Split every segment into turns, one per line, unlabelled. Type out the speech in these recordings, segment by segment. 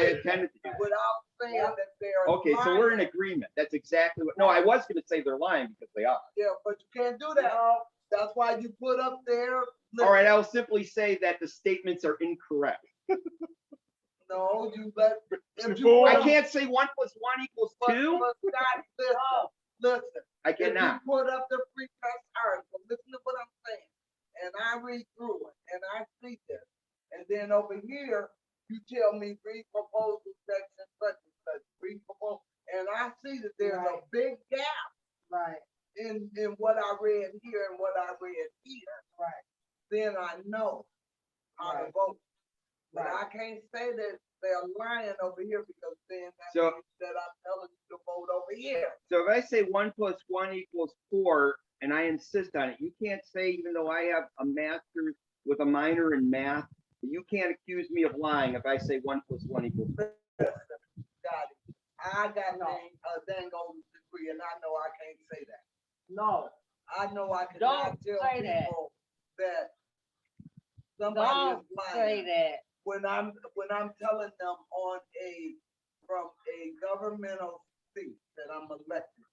I intended to do.
without saying that they're.
Okay, so we're in
lying.
agreement. That's exactly what, no, I was gonna say they're lying because they are.
Yeah, but you can't do that. That's why you put up there.
All right, I'll simply say that the statements are incorrect.
No, you let. if you
Before-
put
I
up-
can't say one plus one equals
but-
two.
but Scott, Listen, listen,
I
if you
cannot.
put up the free press article, listen to what I'm saying. And I read through it and I see this. And then over here, you tell me read proposal section, such and such, read proposal. And I see that there's a
Right.
big gap
Right,
in, in what I read here and what I read here.
right,
then I know how to
Right.
vote. But
Right.
I can't say that they're lying over here because then that
So-
means that I'm telling you to vote over here.
So if I say one plus one equals four and I insist on it, you can't say, even though I have a master's with a minor in math, you can't accuse me of lying if I say one plus one equals.
Got it. I got
No.
dang, a dang old degree and I know I can't say that.
no,
I know I cannot
Don't
tell
say that.
people that somebody is
Don't say
lying
that.
when I'm, when I'm telling them on a, from a governmental seat that I'm elected.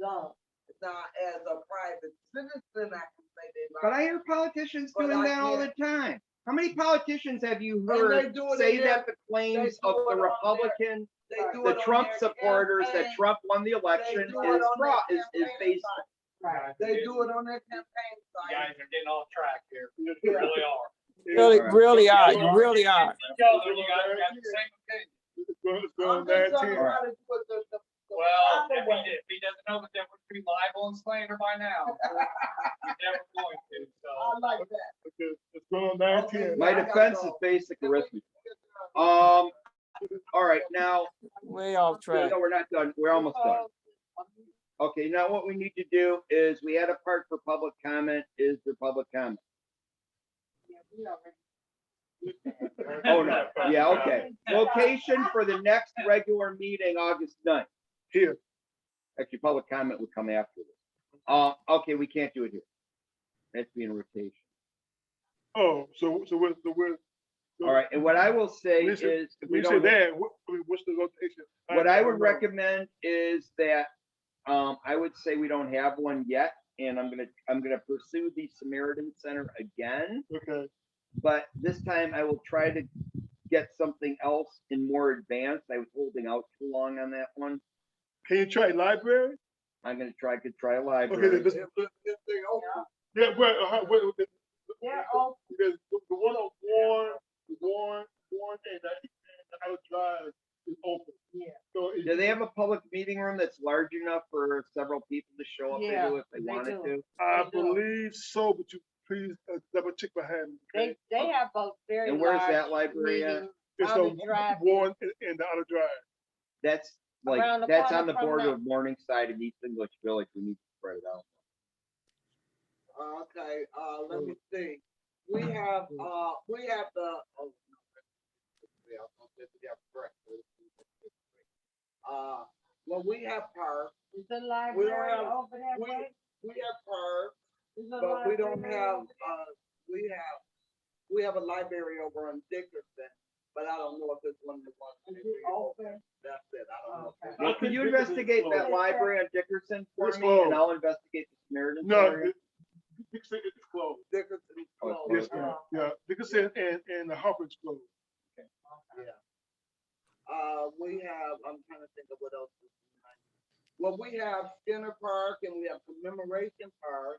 no.
Now, as a private citizen, I can say they
But I
lying.
hear politicians
But
doing
I
that all the time. How many politicians have you
And
heard
they do it
say
in their-
that the claims
do
of
it
the
on their-
Republican,
They
Right.
do
the
it on
Trump
their
supporters that
campaign-
Trump won the election is
do it on
fraud,
their
is, is
campaign
based.
site.
Right.
They do it on their campaign
You Guys
site.
are getting off track here. You really are.
Really,
Alright.
really are. You really are.
You guys got the same opinion.
I'm just talking about it with the- the- the
Well,
proper
if he,
way.
did- if he doesn't know the difference between libel and slander by now, he's never going to, so.
I like that.
It's going
back here.
My
I gotta
defense is
go.
basic arithmetic. Um, all right, now,
Way off track.
no, we're not done. We're almost done.
Oh.
Okay, now what we need to do is we had a part for public comment. Is there public comment?
Yeah, we already-
Oh, no. Yeah, okay. Location for the next regular meeting, August 9th. Here. Actually, public comment would come after this. Uh, okay, we can't do it here. That's being rotation.
Oh, so, so we're, so we're.
All right, and what I will say
We
is,
should-
if we
We said
don't,
that, what, I mean, what's the rotation?
what I would
don't know.
recommend is that, um, I would say we don't have one yet. And I'm gonna, I'm gonna pursue the Samaritan Center again.
Okay,
but this time I will try to get something else in more advanced. I was holding out too long on that one.
can you try library?
I'm gonna try, could try a
Okay, then
library.
this,
If they open,
yeah, where, uh, where, where-
They're open,
because the the one on Warren, Warren, Warren, and I, and I would drive is open.
Yeah.
So.
Do they have a public meeting room that's large enough for several people to show up
Yeah,
into if they
they
wanted
do.
to?
I
they do.
believe so, but you please uh, double check behind. me,
They,
okay?
they
oh.
have both very
And where's that
large
library at?
meeting
It's
on the
on
drive.
Warren and- and the other drive.
That's like,
Around the
that's
corner
on the
from
border
the-
of Morningside and East English Village. We need to spread it out.
uh, okay, uh, let me see. We have, uh, we have the, oh. no. Yeah, I'm just- yeah, correct. Uh, well, we have her,
Is the
we
library
don't have,
over that
we,
way?
we have her.
Is the
But we don't
library
have,
over
uh, we have, we have a library over on Dickerson, but I don't know if this one is one.
is it open?
That's it, I don't know. if it's-
Okay.
Well, could you investigate that library on Dickerson for
It's
me and
closed.
I'll investigate the Samaritan
No,
Center?
you you said it's closed.
Dickerson is
Oh, it's
closed.
Yes, ma'am. Yeah, because it, and, and the Harper's closed.
Uh, we have, I'm trying to think of what else. is behind. Well, we have Skinner Park and we have Commemoration Park,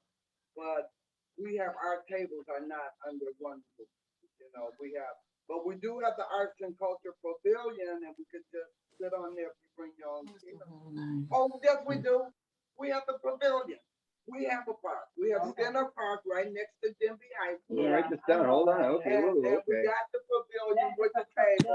but we have, our tables are not under one roof. You know, we have, but we do have the Arts and Culture Pavilion and we could just sit on there if you bring your own. table. Oh, yes, we do. We have the pavilion. We have a park. We have
Okay.
Skinner Park right next to Denby High School.
Write this down. Hold on. Okay,
And,
whoa,
and we
Mm, okay.
got the pavilion with the table.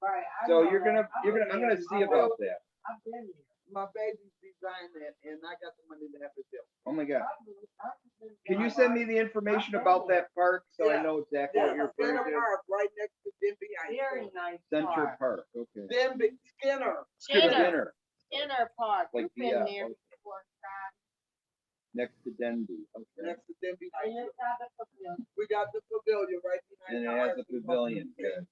Right. I
So
know
you're
that.
gonna,
I
you're
was
gonna, I'm gonna
there.
see about that.
I've been there.
my baby's designed that, and I got the money to have it built.
Oh my God.
I've been- I've been
Can
there.
you send me the information about that park so I know exactly what
Yeah,
you're referring
Skinner
to?
Park, right next to Denby
there?
High
Very
School.
nice
Central
park.
Park, okay.
Denby, Skinner,
Skip
Dinner.
dinner,
Inner Park,
Like
you've
the,
been
uh,
there
like-
before, Scott.
next to Denby, okay.
next to Denby High
And
School.
it's not a pavilion.
We got the pavilion right behind.
And it
the
has
high
a
school.
pavilion,
And